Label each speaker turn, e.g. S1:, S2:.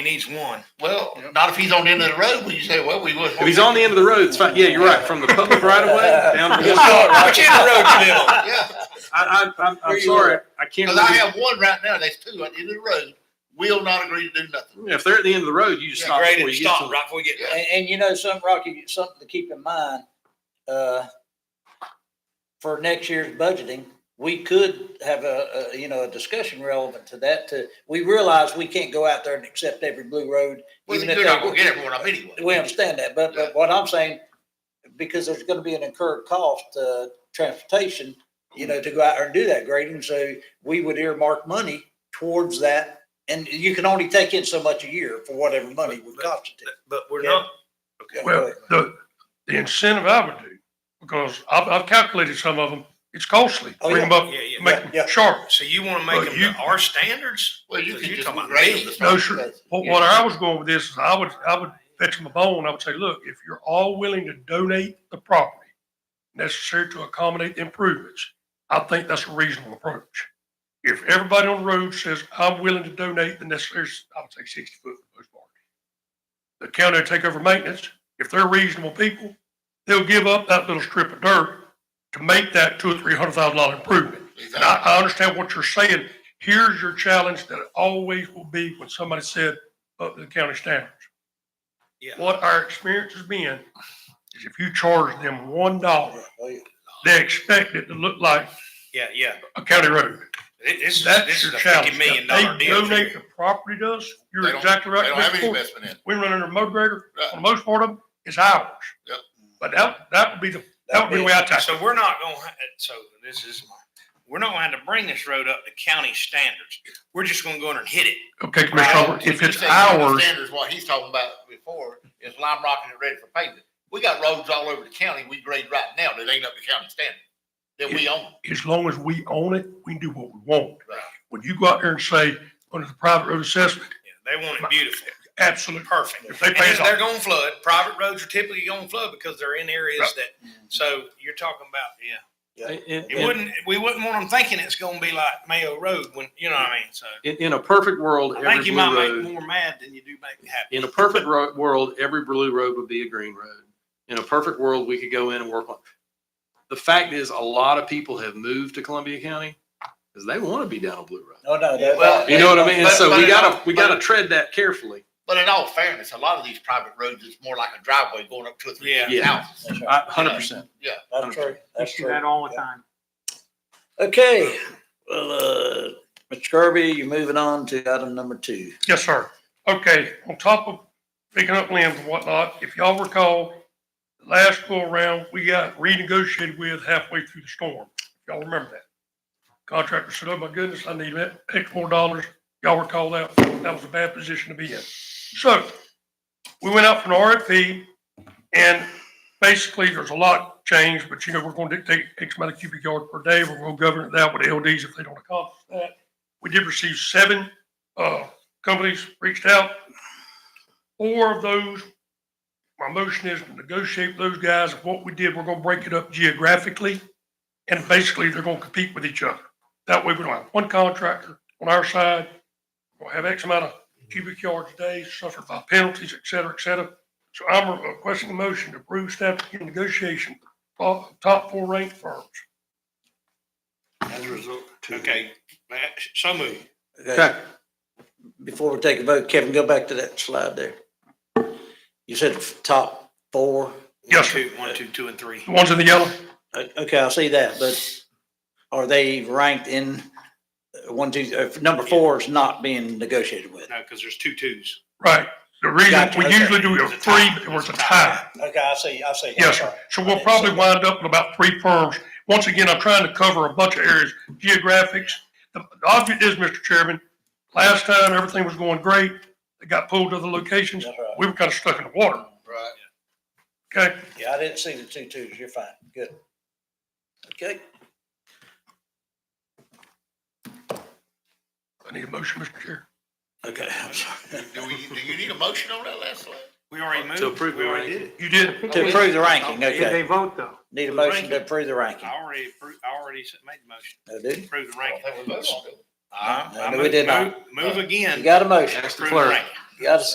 S1: He needs one.
S2: Well,
S3: Yep.
S2: not if he's on the end of the road, we say, well, we would.
S4: If he's on the end of the road, it's fine. Yeah, you're right. From the public right of way down to the
S1: All right,
S4: I,
S1: Which end of the road you live on?
S2: Yeah,
S4: I, I'm,
S3: Where
S4: I'm
S3: you
S4: sorry. I can't.
S2: because I
S4: Really,
S2: have one right now, that's two, at the end of the road, will not agree to do nothing.
S4: if they're at the end of the road, you just
S2: Yeah,
S4: stop
S1: Great,
S4: before
S1: and
S4: you get to
S1: stop
S4: them.
S1: right before we get there.
S3: And, and you know, something, Rocky, something to keep in mind, uh, for next year's budgeting, we could have a, a, you know, a discussion relevant to that to, we realize we can't go out there and accept every blue road.
S2: Well,
S3: even if
S2: they're not
S3: they-
S2: gonna get everyone up anyway.
S3: We understand that, but, but what I'm saying, because there's gonna be an incurred cost, uh, transportation, you know, to go out there and do that grading, so we would earmark money towards that. And you can only take in so much a year for whatever money would constitute.
S1: But we're
S3: Yeah.
S1: not,
S3: Yeah, go
S5: Well,
S3: ahead.
S5: the, the incentive I would do, because I've, I've calculated some of them, it's costly.
S3: Oh,
S5: Bring them up,
S1: yeah, yeah.
S5: make
S3: Yeah.
S5: them sharp.
S1: So you want to
S5: Well,
S1: make them
S5: you-
S1: to our standards?
S2: Well, you
S1: So
S2: can
S1: you're
S2: just
S1: talking about
S2: grade
S1: me.
S2: this.
S5: No, sure. What, what I was going with this is I would, I would fetch them a bone. I would say, look, if you're all willing to donate the property necessary to accommodate the improvements, I think that's a reasonable approach. If everybody on the road says, I'm willing to donate the necessary, I would say sixty foot for the most part. The county will take over maintenance. If they're reasonable people, they'll give up that little strip of dirt to make that two or three hundred thousand dollar improvement. And I, I understand what you're saying. Here's your challenge that it always will be when somebody said up to the county standards.
S1: Yeah.
S5: What our experience has been is if you charge them one dollar,
S3: Oh, yeah.
S5: they expect it to look like
S1: Yeah, yeah.
S5: a county road.
S1: It- This is,
S5: That's
S1: this is
S5: your
S1: a
S5: challenge.
S1: fifty million dollar
S5: Now, They
S1: deal.
S5: donate the
S1: here.
S5: property to us.
S2: They
S5: You're
S2: don't-
S5: exactly
S2: They
S5: right.
S2: don't have any
S5: Mr. Ford.
S2: investment in it.
S5: We run under a motor grader.
S2: Right.
S5: For the most part of them, it's ours.
S2: Yep.
S5: But that, that would be the, that would be the way I tackle it.
S1: So we're not going, to so this is, my- we're not going to have to bring this road up to county standards. We're just going to go in there and hit it.
S5: Okay, Commissioner Hubbard, if
S2: You
S5: it's
S2: say county
S5: ours,
S2: Standards, what he's talking about before is lime rocking it ready for pavement. We got roads all over the county we grade right now that ain't up to county standard, that we own.
S5: as long as we own it, we can do what we want.
S2: Right.
S5: When you go out there and say, under the private road assessment,
S1: Yeah, They want it beautiful.
S5: absolutely
S1: Perfect.
S5: If they
S1: And
S5: pay us
S1: they're
S5: off,
S1: going to flood. Private roads are typically going to flood because they're in areas that, so you're talking about, yeah.
S4: In,
S1: It wouldn't, we wouldn't want them thinking it's gonna be like Mayo Road when, you know what I mean? So
S4: in, in a perfect world,
S1: I
S4: every
S1: think you might
S4: blue
S1: make
S4: road.
S1: more mad than you do make happy.
S4: In a perfect ro- world, every blue road would be a green road. In a perfect world, we could go in and work on. The fact is, a lot of people have moved to Columbia County because they want to be down a blue road.
S3: No, no, that,
S2: Well,
S4: You know what I mean? And
S2: But-
S4: so
S2: but
S4: we
S2: it
S4: gotta
S2: all-
S4: we gotta tread that carefully.
S2: But in all fairness, a lot of these private roads, it's more like a driveway going up two or three
S1: Yeah.
S2: houses.
S4: Yeah.
S3: that's right.
S4: Hundred percent.
S2: Yeah.
S3: That's true. That's true.
S6: all
S3: the
S6: time.
S3: Okay, well, uh, Mr. Kirby, you're moving on to item number two.
S5: Yes, sir. Okay, on top of picking up limbs and whatnot, if y'all recall, last go around, we got renegotiated with halfway through the storm. Y'all remember that? Contractor said, oh my goodness, I need X more dollars. Y'all recall that? That was a bad position to be in. So we went out for an RFP and basically there's a lot changed, but you know, we're going to dictate X amount of cubic yard per day. We're going to govern that with LDs if they don't accomplish that. We did receive seven, uh, companies reached out. Four of those, my motion is to negotiate with those guys. What we did, we're gonna break it up geographically. And basically, they're gonna compete with each other. That way, we don't have one contractor on our side. We'll have X amount of cubic yards a day suffered by penalties, et cetera, et cetera. So I'm requesting a motion to approve staff to begin negotiation, uh, top four ranked firms.
S1: Okay, that- so moved.
S3: Okay. Before we take a vote, Kevin, go back to that slide there. You said top four.
S5: Yes, sir.
S1: Two, one, two, two, and three.
S5: The ones in the yellow?
S3: O- Okay, I see that, but are they ranked in uh, one, two, uh, number four is not being negotiated with?
S1: No, because there's two twos.
S5: Right. The reason,
S3: Gotcha,
S5: we
S3: okay.
S5: usually do a
S1: It's a
S5: three,
S1: tie.
S5: but it was a
S1: It's a tie.
S5: tie.
S3: Okay, I see, I see.
S5: Yes, sir. So we'll probably wind up with about three firms. Once again, I'm trying to cover a bunch of areas, geographics. The the object is, Mr. Chairman, last time, everything was going great. They got pulled to the locations.
S3: That's right.
S5: We were kind of stuck in the water,
S2: Right.
S5: okay?
S3: Yeah, I didn't see the two twos. You're fine. Good. Okay.
S5: I need a motion, Mr. Chair.
S3: Okay, I'm sorry.
S2: Do we, do you need a motion on that last slide?
S1: We already moved.
S4: To approve
S1: We
S4: the
S1: already did
S4: ranking.
S1: it.
S5: You did.
S3: To approve the ranking,
S6: If they
S3: okay.
S6: vote though.
S3: Need a motion to approve the ranking.
S1: I already approved, I already s- made the motion,
S3: I do.
S1: approve the
S2: I don't
S1: ranking.
S2: think we voted on it.
S1: I- I
S3: No, we
S1: moved-
S3: did not.
S1: move- Move
S3: You
S1: again.
S3: got a motion.
S4: Ask the
S1: Approve the
S4: clerk.
S1: ranking.
S3: You gotta